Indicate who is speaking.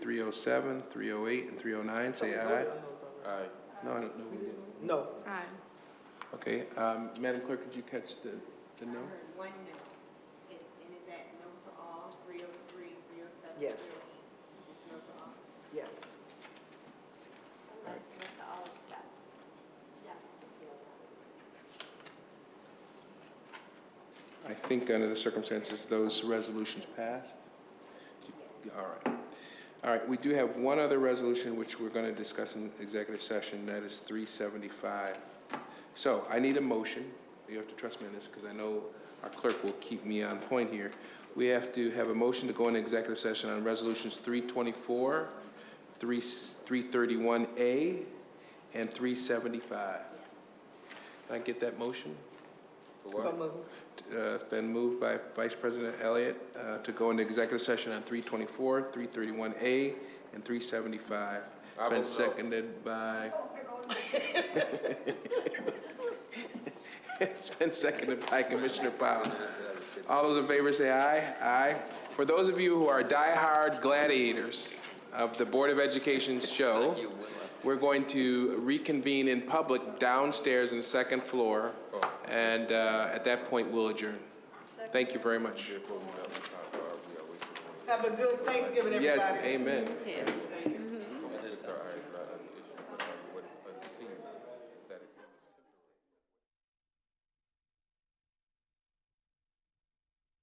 Speaker 1: 307, 308, and 309, say aye.
Speaker 2: Aye.
Speaker 1: No, I don't know. we didn't.
Speaker 2: No.
Speaker 3: Aye.
Speaker 1: Okay, um, Madam Clerk, did you catch the, the no?
Speaker 4: heard one no. Is, and is that no to all, three oh three, three oh seven, three oh eight?
Speaker 2: Yes.
Speaker 4: It's no to all?
Speaker 2: Yes.
Speaker 5: Let's go to all except, yes, to feel something.
Speaker 1: I think under the circumstances, those resolutions passed. All right. All right, we do have one other resolution which we're going to discuss in executive session, that is 375. So I need a motion. You have to trust me on this because I know our clerk will keep me on point here. We have to have a motion to go into executive session on resolutions 324, 3 331A, and 375. Can I get that motion?
Speaker 2: So moved.
Speaker 1: Uh, It's been moved by Vice President Elliott uh, to go into executive session on 324, 331A, and 375. It's been seconded by, it's been seconded by Commissioner Powell. All those in favor say aye. Aye. For those of you who are diehard gladiators of the Board of Education's show, we're going to reconvene in public downstairs in the second floor, and uh, at that point, we'll adjourn. Thank you very much.
Speaker 2: Have a good Thanksgiving, everybody.
Speaker 1: Yes, amen.
Speaker 3: Yeah.